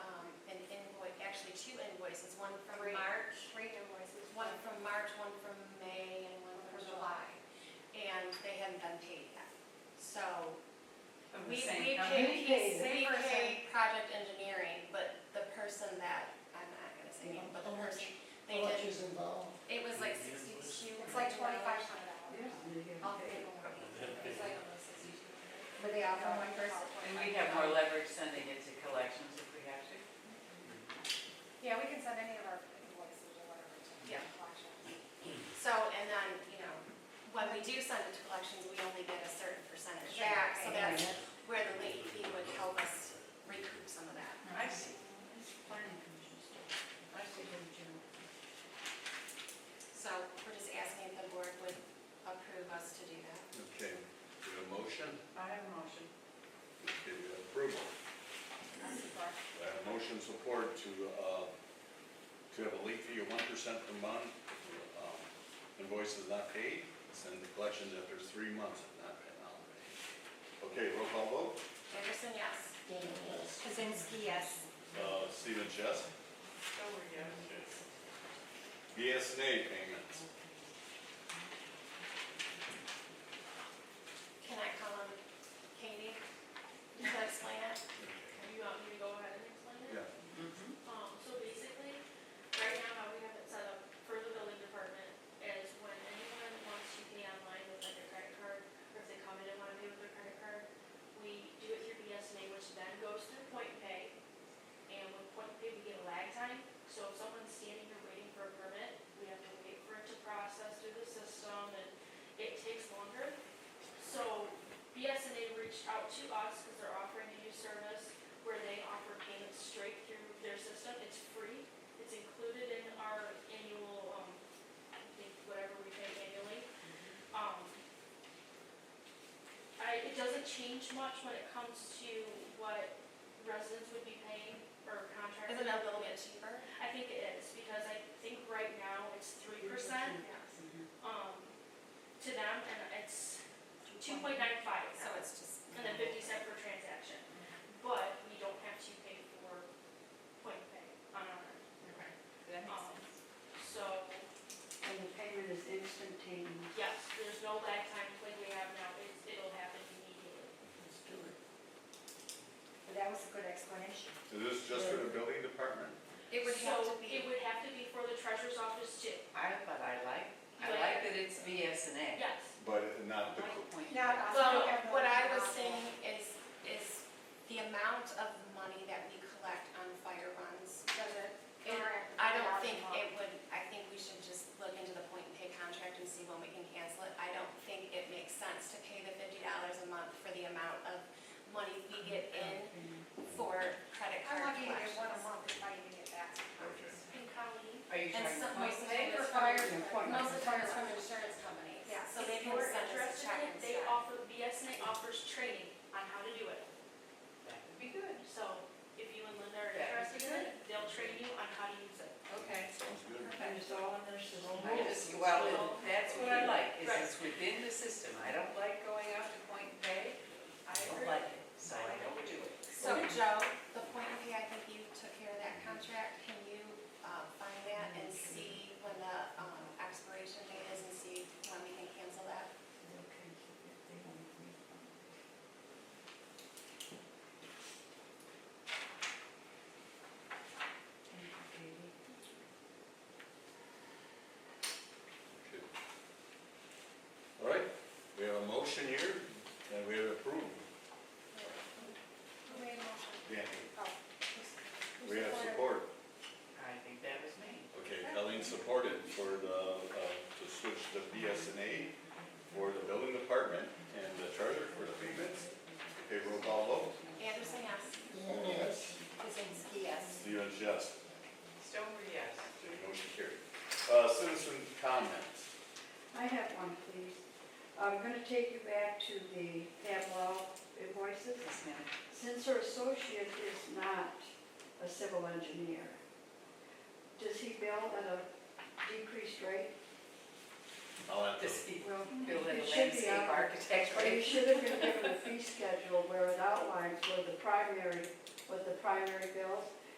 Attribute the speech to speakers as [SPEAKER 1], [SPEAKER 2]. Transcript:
[SPEAKER 1] um, invoices, one from
[SPEAKER 2] Three.
[SPEAKER 1] March,
[SPEAKER 2] Three invoices.
[SPEAKER 1] one from March, one from May, and one from July. And they hadn't been paid yet. So
[SPEAKER 3] Of the
[SPEAKER 1] we,
[SPEAKER 3] same
[SPEAKER 1] we
[SPEAKER 3] company?
[SPEAKER 1] paid,
[SPEAKER 2] paid it.
[SPEAKER 1] we
[SPEAKER 2] Same person.
[SPEAKER 1] paid project engineering, but the person that, I'm not gonna say name, but the person, they
[SPEAKER 4] How much
[SPEAKER 1] did,
[SPEAKER 4] is involved?
[SPEAKER 1] it was like sixty-two.
[SPEAKER 2] It's like twenty-five hundred dollars.
[SPEAKER 1] I'll pay more. It's like almost sixty-two. But they all
[SPEAKER 2] got
[SPEAKER 1] one person.
[SPEAKER 3] And we have more leverage sending it to collections if we have to.
[SPEAKER 2] Yeah, we can send any of our invoices or whatever to
[SPEAKER 1] Yeah.
[SPEAKER 2] collection.
[SPEAKER 1] So, and then, you know, when we do send it to collections, we only get a certain percentage back, so
[SPEAKER 2] Exactly.
[SPEAKER 1] that's where the late fee would help us recoup some of that.
[SPEAKER 3] I see,
[SPEAKER 5] Planning commission stuff. I see them general.
[SPEAKER 1] So we're just asking if the board would approve us to do that.
[SPEAKER 6] Okay, we have a motion,
[SPEAKER 3] I have a motion.
[SPEAKER 6] we have approval.
[SPEAKER 2] That's the part.
[SPEAKER 6] We have a motion support to, uh, to have a late fee of one percent per month. if, um, Invoice is not paid, send the collections after three months if not paid. not paid. Okay, roll call vote,
[SPEAKER 1] Anderson, yes?
[SPEAKER 4] Dana, yes.
[SPEAKER 5] Kazinsky, yes.
[SPEAKER 6] uh, Stephen Chess.
[SPEAKER 3] So we're good.
[SPEAKER 6] BSNA payments.
[SPEAKER 1] Can I call on Katie to explain it?
[SPEAKER 7] You want me to go ahead and explain it?
[SPEAKER 6] Yeah,
[SPEAKER 3] Mm-hmm.
[SPEAKER 7] Um, so basically, right now, how we have it set up for the building department is when anyone wants to pay online with like their credit card, or if they come in and wanna pay with their credit card, we do it through BSNA, which then goes through Point Pay. And with Point Pay, we get a lag time, so if someone's standing here waiting for a permit, we have to wait for it to process through the system, and it takes longer. So BSNA reached out to us, cause they're offering a new service, where they offer payments straight through their system. It's free. It's included in our annual, um, I think whatever we pay annually. Um, I, it doesn't change much when it comes to what residents would be paying or contractors.
[SPEAKER 1] Isn't it a little bit cheaper?
[SPEAKER 7] I think it is, because I think right now it's three percent, um, to them, and it's two point nine five
[SPEAKER 1] So it's just.
[SPEAKER 7] and then fifty cent per transaction. But we don't have to pay for point pay on our,
[SPEAKER 3] That makes
[SPEAKER 7] um,
[SPEAKER 3] sense.
[SPEAKER 7] so,
[SPEAKER 5] And the payment is instantaneous.
[SPEAKER 7] yes, there's no lag time like we have now, it's, it'll happen immediately.
[SPEAKER 5] Let's do it.
[SPEAKER 2] But that was a good explanation.
[SPEAKER 6] is this just for the building department?
[SPEAKER 1] It would have to
[SPEAKER 7] So it
[SPEAKER 1] be,
[SPEAKER 7] would have to be for the treasurer's office too,
[SPEAKER 3] I, but I like, I
[SPEAKER 7] But-
[SPEAKER 3] like that it's BSNA.
[SPEAKER 7] yes.
[SPEAKER 6] But not the,
[SPEAKER 2] Not us.
[SPEAKER 1] well,
[SPEAKER 2] we have the-
[SPEAKER 1] what I was saying is, is the amount of money that we collect on fire runs.
[SPEAKER 2] Doesn't-
[SPEAKER 1] it-
[SPEAKER 2] Correct.
[SPEAKER 1] I don't think it would, I think we should just look into the point and pay contract and see when we can cancel it. I don't think it makes sense to pay the fifty dollars a month for the amount of money we get in for credit
[SPEAKER 2] I'm
[SPEAKER 1] card
[SPEAKER 2] lucky to get one a
[SPEAKER 1] collections.
[SPEAKER 2] month if I even get that.
[SPEAKER 7] And Colleen,
[SPEAKER 3] Are you
[SPEAKER 1] And
[SPEAKER 3] trying
[SPEAKER 1] some-
[SPEAKER 3] to?
[SPEAKER 1] most of
[SPEAKER 2] They
[SPEAKER 1] it is
[SPEAKER 2] require-
[SPEAKER 1] from- most of it is from insurance companies.
[SPEAKER 2] Yeah.
[SPEAKER 1] So they
[SPEAKER 7] if
[SPEAKER 1] can
[SPEAKER 7] you're
[SPEAKER 1] send us a
[SPEAKER 7] interested
[SPEAKER 1] check
[SPEAKER 7] in it, They
[SPEAKER 1] instead.
[SPEAKER 7] offer, BSNA offers training on how to do it.
[SPEAKER 3] That would be good.
[SPEAKER 7] So if you and Linda are
[SPEAKER 3] That would
[SPEAKER 7] interested in it, they'll train you on how to use it.
[SPEAKER 3] Okay.
[SPEAKER 6] sounds good.
[SPEAKER 5] And it's all in their system.
[SPEAKER 3] I just, well, and that's what I like, is
[SPEAKER 7] Right.
[SPEAKER 3] it's within the system. I don't like going out to point and pay. I don't like it, so I don't do it.
[SPEAKER 1] So Joe, the point of view, I think you took care of that contract. Can you uh, find that and see when the um, expiration date is and see when we can cancel that?
[SPEAKER 5] Okay, so if they want to refund it. Thank you, Katie.
[SPEAKER 6] All right, we have a motion here, and we have approved,
[SPEAKER 2] Who made a motion?
[SPEAKER 6] Danny.
[SPEAKER 2] Oh.
[SPEAKER 6] We have support.
[SPEAKER 3] I think that was me.
[SPEAKER 6] Okay, Colleen supported for the, uh, to switch to BSNA for the building department and the charter for the payments. Okay, roll call vote.
[SPEAKER 1] Anderson, yes?
[SPEAKER 4] Dana, yes.
[SPEAKER 1] Kuzinski, yes.
[SPEAKER 6] Stephen Chess.
[SPEAKER 3] Stover, yes.
[SPEAKER 6] Okay, motion carried. Uh, Citizen comments.
[SPEAKER 5] I have one, please. I'm gonna take you back to the Pavlov invoices.
[SPEAKER 3] Yes, ma'am.
[SPEAKER 5] Since her associate is not a civil engineer, does he bill at a decreased rate?
[SPEAKER 6] I'll have to,
[SPEAKER 3] Does he
[SPEAKER 5] Well,
[SPEAKER 3] build a
[SPEAKER 5] it should be
[SPEAKER 3] landscape
[SPEAKER 5] on-
[SPEAKER 3] architect?
[SPEAKER 5] Or you should have been given a fee schedule where it outlines where the primary, what the primary bills